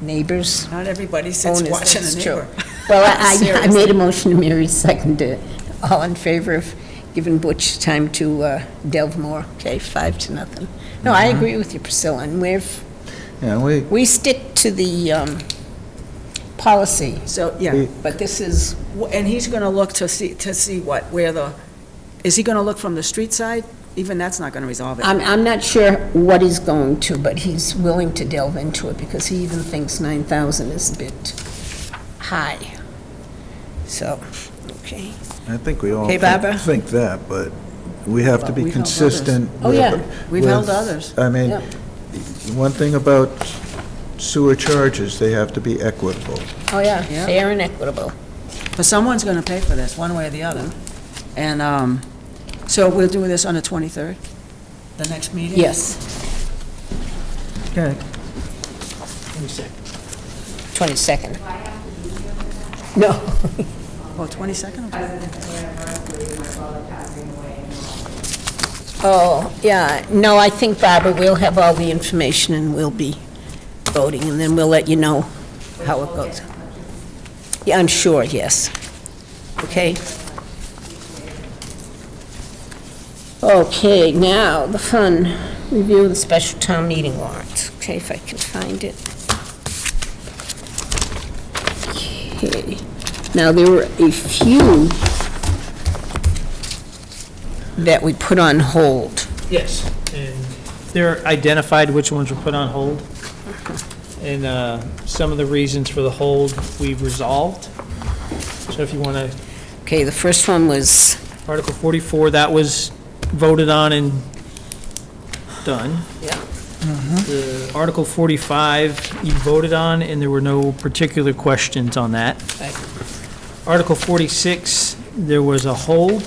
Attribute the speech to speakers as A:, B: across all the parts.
A: neighbors.
B: Not everybody sits
A: Own is-
B: watching
A: that's
B: a
A: true.
B: neighbor.
A: Well, I, I
B: Seriously.
A: made a motion, Mary seconded it. All in favor of giving Butch time to uh, delve more? Okay, five to nothing. No, I agree with you, Priscilla, and we've,
C: Yeah, we,
A: we stick to the um, policy,
B: So, yeah,
C: We-
A: but this is,
B: W- and he's gonna look to see, to see what, where the, is he gonna look from the street side? Even that's not gonna resolve it.
A: I'm, I'm not sure what he's going to, but he's willing to delve into it because he even thinks 9,000 is a bit high. So, okay.
C: I think we all
A: Okay, Barbara?
C: think think that, but we have to be
B: We've held others.
C: consistent.
A: Oh,
C: with-
A: yeah.
B: We've held
C: with-
B: others.
C: I mean,
A: Yeah.
C: one thing about sewer charges, they have to be equitable.
A: Oh, yeah,
B: Yeah.
A: fair and equitable.
B: But someone's gonna pay for this, one way or the other. And, um, so we'll do this on the 23rd, the next meeting?
A: Yes,
C: Okay.
A: 22nd. No,
B: Oh, 22nd?
A: oh, yeah, no, I think, Barbara, we'll have all the information and we'll be voting, and then we'll let you know how it goes. Yeah, I'm sure, yes. Okay? Okay, now, the fun, review of the special town meeting warrant. Okay, if I can find it. Okay, now, there were a few that we put on hold.
D: Yes, and they're identified which ones were put on hold. And uh, some of the reasons for the hold, we've resolved. So if you want to,
A: Okay, the first one was,
D: Article 44, that was voted on and done.
A: Yeah.
D: The Article 45, you voted on, and there were no particular questions on that.
A: Right.
D: Article 46, there was a hold,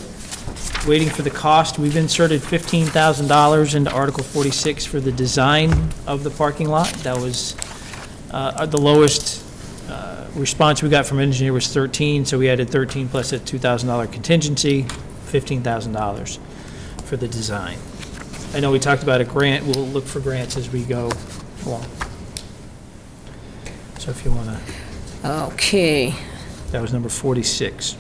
D: waiting for the cost. We've inserted $15,000 into Article 46 for the design of the parking lot. That was, uh, the lowest uh, response we got from engineer was 13, so we added 13 plus a $2,000 contingency, $15,000 for the design. I know we talked about a grant, we'll look for grants as we go along. So if you want to,
A: okay,
D: that was number 46.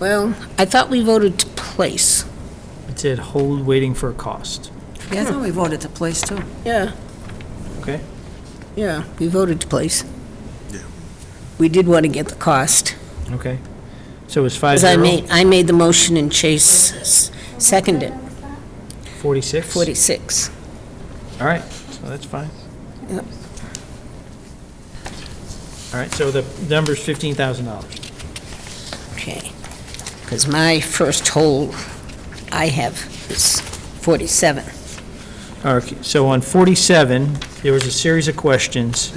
A: well, I thought we voted to place.
D: It said hold waiting for a cost,
B: Yeah, I thought we voted to place too.
A: Yeah,
D: okay?
A: yeah, we voted to place. We did want to get the cost.
D: Okay. So it was 5
A: Because I made, I made the motion and Chase s- seconded,
D: 46?
A: 46.
D: All right, so that's fine.
A: Yep.
D: All right, so the number's $15,000.
A: Okay. Because my first hold, I have is 47.
D: Okay, so on 47, there was a series of questions.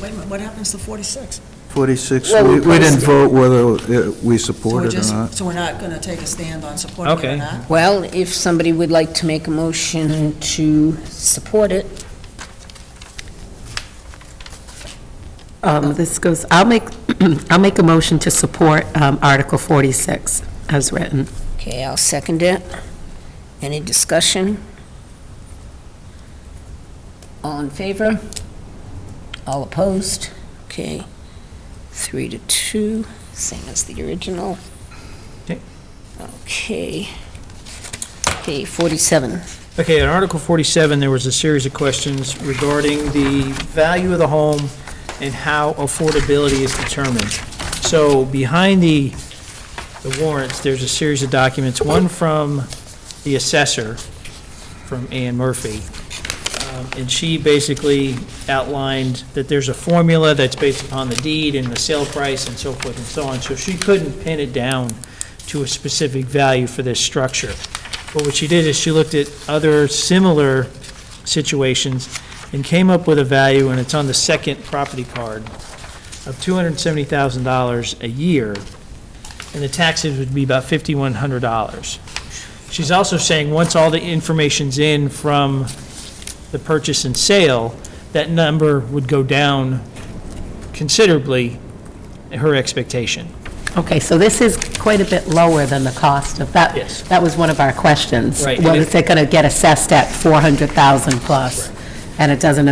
B: Wait a minute, what happens to 46?
C: 46,
A: Well, we
C: we we didn't
A: placed it.
C: vote whether uh, we
B: So we're
C: support it or
B: just-
C: not.
B: So we're not gonna take a stand on supporting it or
D: Okay.
B: not?
A: Well, if somebody would like to make a motion to support it,
E: Um, This goes, I'll make, I'll make a motion to support um, Article 46 as written.
A: Okay, I'll second it. Any discussion? All in favor? All opposed? Okay, three to two, same as the original.
D: Okay.
A: Okay. Okay, 47.
D: Okay, in Article 47, there was a series of questions regarding the value of the home and how affordability is determined. So behind the, the warrants, there's a series of documents, one from the assessor, from Ann Murphy. Um, And she basically outlined that there's a formula that's based upon the deed and the sale price and so forth and so on. So she couldn't pin it down to a specific value for this structure. But what she did is she looked at other similar situations and came up with a value, and it's on the second property card, of $270,000 a year, and the taxes would be about $5,100. She's also saying, once all the information's in from the purchase and sale, that number would go down considerably, her expectation.
E: Okay, so this is quite a bit lower than the cost of that.
D: Yes.
E: That was one of our questions.
D: Right, and
E: Well,
D: if-
E: is it going to get assessed at 400,000 plus? And it doesn't